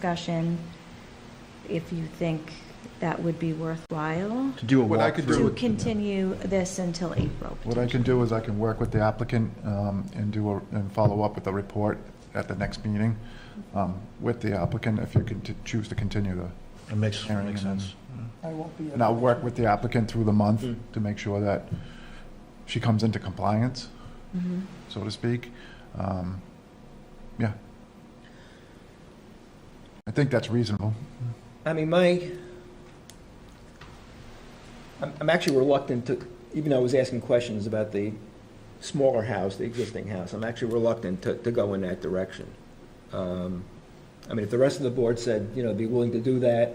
discussion if you think that would be worthwhile To do a What I could do walkthrough. to continue this until April. What I can do is I can work with the applicant um, and do, a- and follow up with a report at the next meeting um, with the applicant if you can t- choose to continue the, It makes, Hearing makes and- sense. I won't be. and I'll work with the applicant through the month Mm. to make sure that she comes into compliance, Mhm. so to speak. Um, Yeah. I think that's reasonable. I mean, my, I'm, I'm actually reluctant to, even though I was asking questions about the smaller house, the existing house, I'm actually reluctant to, to go in that direction. Um, I mean, if the rest of the board said, you know, be willing to do that,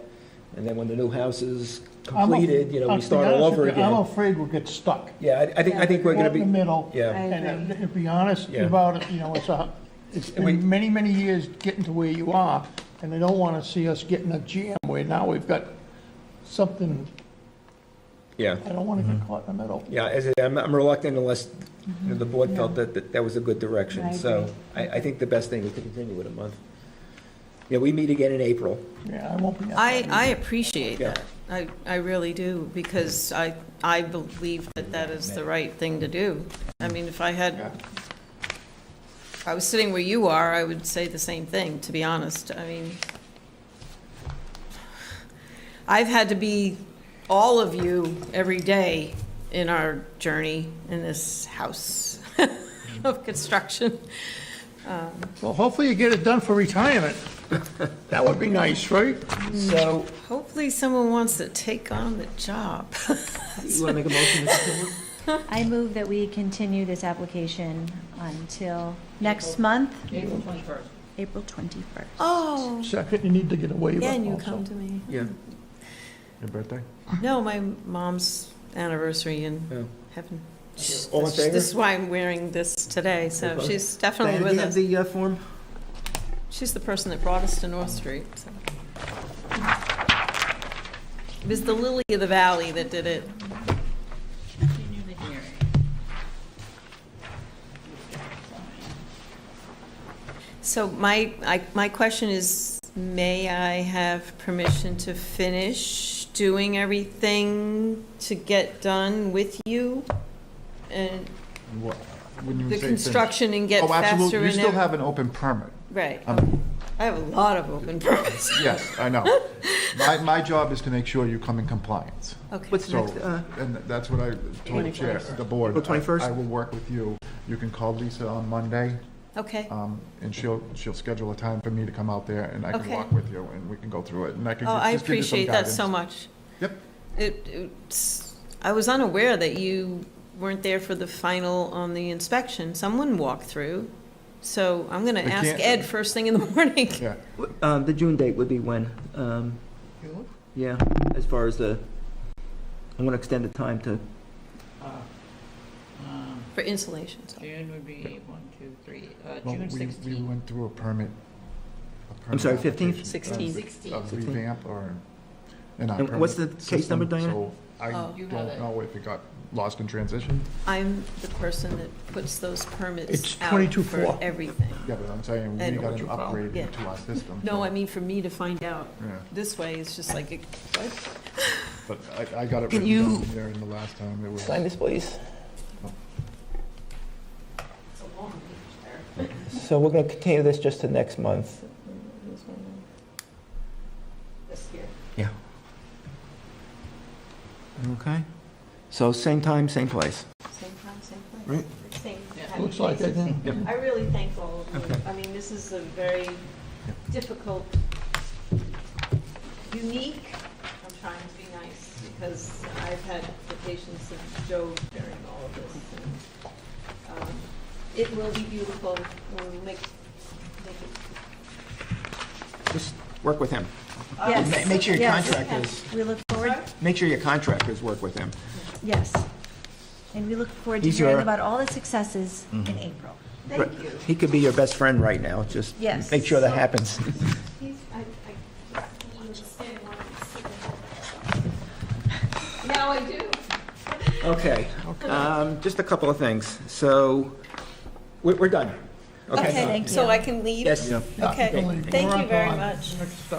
and then when the new house is I'm a- completed, you know, I'll we be start all honest over with you, I'm again. afraid we'll get stuck. Yeah, I, I think, I think we're gonna Caught in be, the middle. I yeah, And agree. uh, to be honest Yeah. about it, you know, it's a, it's We- been many, many years getting to where you are, and they don't want to see us getting a jam where now we've got something, yeah. I don't want to Mm-hmm. get caught in the middle. Yeah, as I, I'm, I'm reluctant unless you know, the board felt that, that that was a good Mm-hmm. I direction. So agree. I, I think the best thing is to continue with a month. Yeah, we meet again in April. Yeah, I won't be. at I, that I meeting. appreciate Yeah. that. I, I really do, because I, I believe that that is the right thing to do. I mean, if I had, if I was sitting where you are, I would say the same thing, to be honest. I mean, I've had to be all of you every day in our journey in this house of construction. Uh, Well, hopefully you get it done for retirement. That would be nice, right? So, Hopefully, someone wants to take on the job. you want to make a motion? Mr. I move that we continue this application until next month? April 21st. April 21st. Oh, Second, you need to get away with it yeah, and you also. come to me. Yeah, Your birthday? No, my mom's anniversary in yeah. heaven. All in favor? This is why I'm wearing this today, so Okay. she's definitely with us. the uh, form? She's the person that brought us to North Street, so. It was the lily of the valley that did it. So my, I, my question is, may I have permission to finish doing everything to get done with you? And What- when you the say- construction and get Oh, faster absolutely. and You still ev- have an open permit. Right, Um, I have a lot of open permits. Yes, I know. My, my job is to make sure you come in compliance. Okay, So, uh, and that's what I told the Chair, the board. April 21st? I I will work with you. You can call Lisa on Monday, okay, Oh, um, and she'll, she'll schedule a time for me to come out there, and I can Okay. walk with you, and we can go through it, and I can oh, I just give you some appreciate that so guidance. much. Yep. It, it's, I was unaware that you weren't there for the final on the inspection, someone walked through, so I'm gonna They ask can't- Ed first thing in the morning. Yeah, Um, the June date would be when? Um, yeah, as far as the, I want to extend the time to, For insulation, so. Uh, um, June would be one, two, three, uh, well, June we, we sixteenth. went through a permit. a permit sorry, 15th? application. uh, 16th. A 16th. revamp or an And what's the case number, Diana? So I Oh. don't You have it. know if it got lost in transition. I'm the person that puts those It's permits out 22.4. for everything. Yeah, but I'm saying, we And- got an upgrade Yeah. into our system. No, so- I mean, for me to find out Yeah, this way, it's just like, what? but I, I got it Can written down you- there in the last time. It was, sign this, please. So we're going to continue this just to next month. This here. Yeah. Okay. So same time, same place. Same time, same place. Right. Same happy Looks like place. it, then. I really thank all of you. Okay. I mean, this is a very difficult, unique, I'm trying to be nice, because I've had the patience of Joe during all of this. and, um, It will be beautiful, we'll make, make it. Just work with him. Yes. Ma- Make sure your Yes. contractors, We look forward, make sure your contractors work with him. yes. And we look forward to He's hearing your- about all the successes Mm-hmm. in April. Thank you. He could be your best friend right now, just Yes. make sure that happens. He's, I, I just wanted to say one second. Now I do. Okay, um, just a couple of things. So, we're, we're done. Okay. Okay, Thank so you. I can leave? Yes. Okay, Believe me. thank We're you up very on much. next